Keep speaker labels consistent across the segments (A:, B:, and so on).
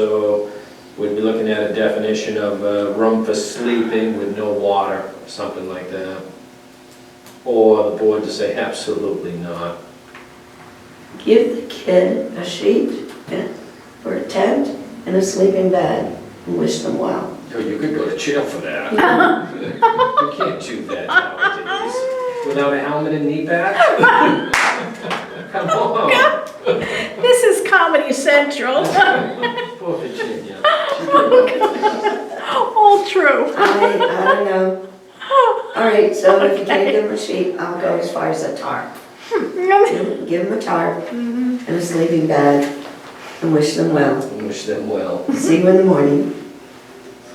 A: so we'd be looking at a definition of a room for sleeping with no water, something like that. Or the board to say absolutely not.
B: Give the kid a sheet and- or a tent and a sleeping bag and wish them well.
A: Yo, you could go to jail for that. You can't do that nowadays. Without a helmet and knee pad? Come on,
C: This is Comedy Central.
A: poor Virginia.
C: All true.
B: I, I don't know. All right, so if you can't give them a sheet, I'll go as far as a tarp. Give give them a tarp and a sleeping bag and wish them well.
A: Wish them well.
B: See you in the morning,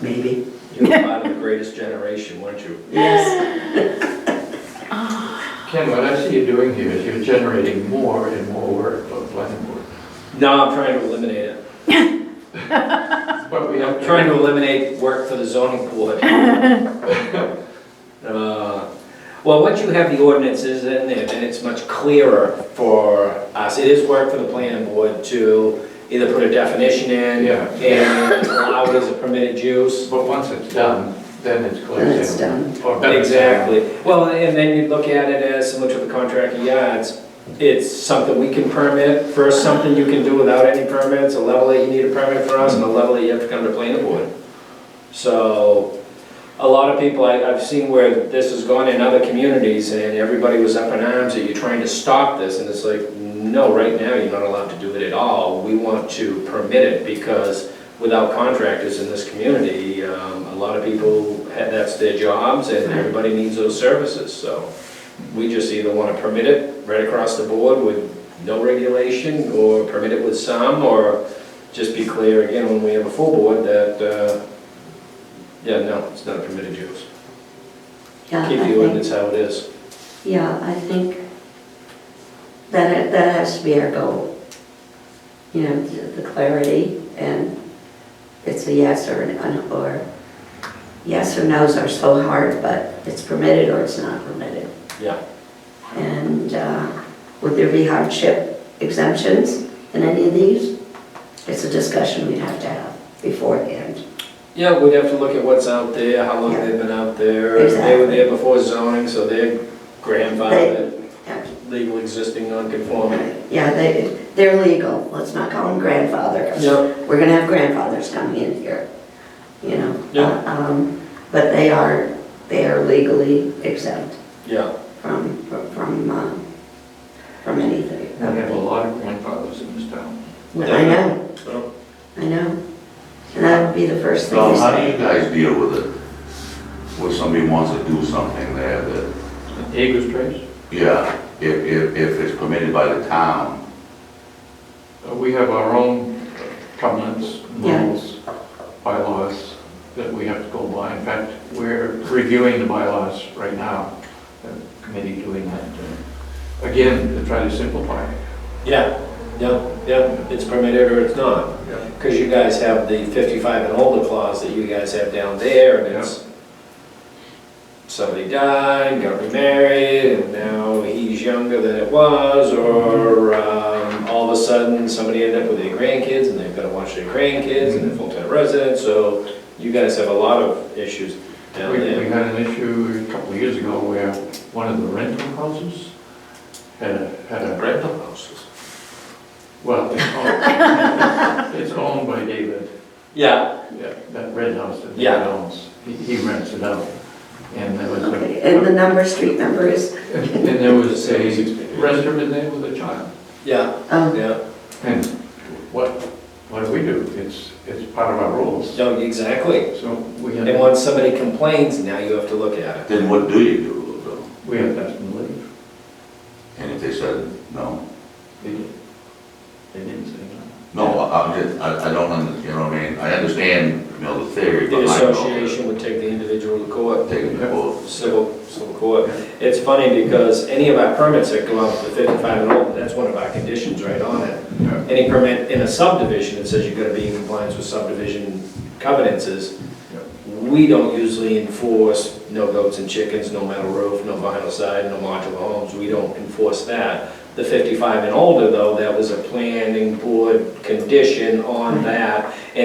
B: maybe.
A: You're part of the greatest generation, weren't you?
B: Yes,
D: Ken, what I see you doing here is you're generating more and more work for the planning board.
A: No, I'm trying to eliminate it.
D: But we have.
A: I'm trying to eliminate work for the zoning board. Uh, Well, once you have the ordinances in there, then it's much clearer for us. It is work for the planning board to either put a definition in
D: Yeah.
A: and allow it as a permitted use.
D: But once it's done, then it's closed.
B: Then it's done.
D: Or better.
A: Exactly. Well, and then you look at it as similar to the contract of yards. It's something we can permit, first something you can do without any permits, a level that you need a permit for us, and a level that you have to come to planning board. So, a lot of people, I, I've seen where this has gone in other communities, and everybody was up in arms that you're trying to stop this, and it's like, no, right now, you're not allowed to do it at all. We want to permit it, because without contractors in this community, um, a lot of people, ha- that's their jobs, and everybody needs those services, so. We just either wanna permit it right across the board with no regulation, or permit it with some, or just be clear again when we have a full board that, uh, yeah, no, it's not a permitted use.
B: yeah, I
A: Keep the
B: think,
A: ordinance how it is.
B: yeah, I think that, that has to be our goal. You know, the the clarity and it's a yes or an, an- or, yes or no's are so hard, but it's permitted or it's not permitted.
A: Yeah.
B: And uh, would there be hardship exemptions in any of these? It's a discussion we'd have to have beforehand.
A: Yeah, we'd have to look at what's out there, how long they've been out there. They were
B: Exactly.
A: there before zoning, so they're grandfathered,
B: Yeah.
A: legal existing non-conforming.
B: Yeah, they, they're legal, let's not call them grandfather, 'cause
A: Yeah.
B: we're gonna have grandfathers coming in here, you know?
A: Yeah.
B: Um, But they are, they are legally exempt
A: Yeah,
B: from, from, um, from anything.
D: We have a lot of grandfathers in this town.
B: I know,
A: well,
B: I know, and that would be the first thing
E: So
B: you
E: how do
B: say.
E: you guys deal with it? When somebody wants to do something there that,
D: Eagles Trace,
E: yeah, if, if, if it's permitted by the town,
D: uh, we have our own covenants,
B: Yeah.
D: rules, bylaws that we have to go by. In fact, we're reviewing the bylaws right now, the committee doing that. uh, Again, to try to simplify. it.
A: Yeah, yeah, yeah, it's permitted or it's not.
D: Yeah.
A: Because you guys have the 55 and older clause that you guys have down there, and it's, somebody died, got remarried, and now he's younger than it was, or um, all of a sudden, somebody ended up with their grandkids, and they've got to watch their grandkids, and they're full-time residents, so you guys have a lot of issues down
D: We, we
A: there.
D: had an issue a couple of years ago where one of the rental houses had a, had a,
A: Rental houses.
D: well, it's owned- it's owned by David,
A: Yeah,
D: yeah, that red house that he
A: Yeah.
D: owns. He- He rents it out. And there was
B: Okay, And the
D: a,
B: number, street number is,
D: and there was a renter in there with a child.
A: yeah,
B: um,
A: yeah,
D: And what, what do we do? It's, it's part of our rules.
A: no, exactly.
D: So we
A: And
D: had,
A: once somebody complains, now you have to look at it.
E: then what do you do though?
D: we had to ask them to leave.
E: And if they said, no,
D: They didn't, they didn't say no.
E: no, I- I'm just, I, I don't, under- you know what I mean? I understand, you know, the theory
A: The
E: behind all this.
A: association would take the individual to court,
E: Taking the vote.
A: civil, civil court. It's funny because any of our permits that go out to fifty-five and older, that's one of our conditions right on it.
D: Yeah.
A: Any permit in a subdivision that says you've got to be in compliance with subdivision covenants is, we don't usually enforce no goats and chickens, no metal roof, no vinyl side, no modular homes. We don't enforce that. The fifty-five and older, though, that was a planning board condition on that.